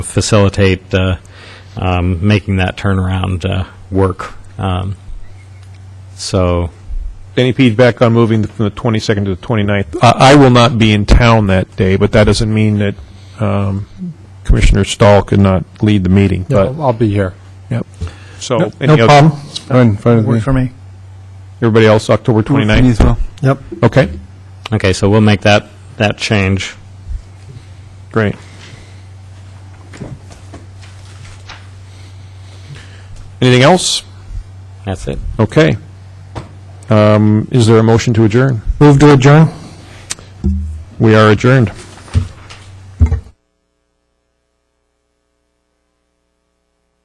facilitate uh, um, making that turnaround uh, work. Um, So, Any feedback on moving the- from the 22nd to the 29th? I I will not be in town that day, but that doesn't mean that um, Commissioner Stahl could not lead the meeting, Yeah, but, I'll I'll be here. so. No any no other- problem. Fine, fine Work with me. for me. Everybody else, October Work for me 29th? Mhm. as well. Yep. Okay, okay, so we'll make that, that change. great. Anything else? That's it. Okay. Um, Is there a motion to adjourn? Move to adjourn. We are adjourned.